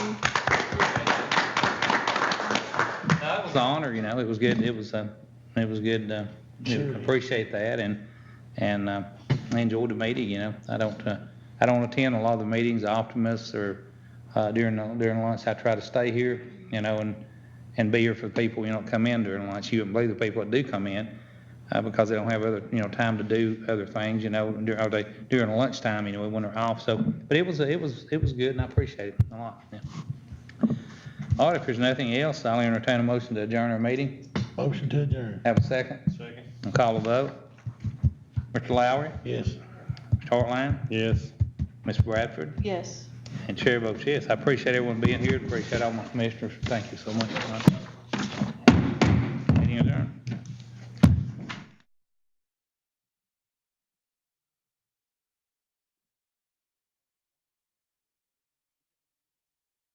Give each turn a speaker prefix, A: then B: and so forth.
A: was the honor, you know, it was good, it was, uh, it was good, uh,
B: Sure.
A: appreciate that, and, and, uh, I enjoyed the meeting, you know, I don't, uh, I don't attend a lot of the meetings, Optimists or, uh, during, during lunch, I try to stay here, you know, and, and be here for people, you know, come in during lunch, you wouldn't believe the people that do come in, uh, because they don't have other, you know, time to do other things, you know, during, or they, during lunchtime, you know, when they're off, so, but it was, it was, it was good, and I appreciate it a lot, yeah. All right, if there's nothing else, I'll entertain a motion to adjourn our meeting.
B: Motion to adjourn.
A: Have a second? Second. And call a vote. Mr. Lowry,
B: Yes.
A: Mr. Hartline,
B: Yes.
A: Ms. Bradford,
C: Yes.
A: and Chair votes yes. I appreciate everyone being here, appreciate all my commissioners. Thank you so much.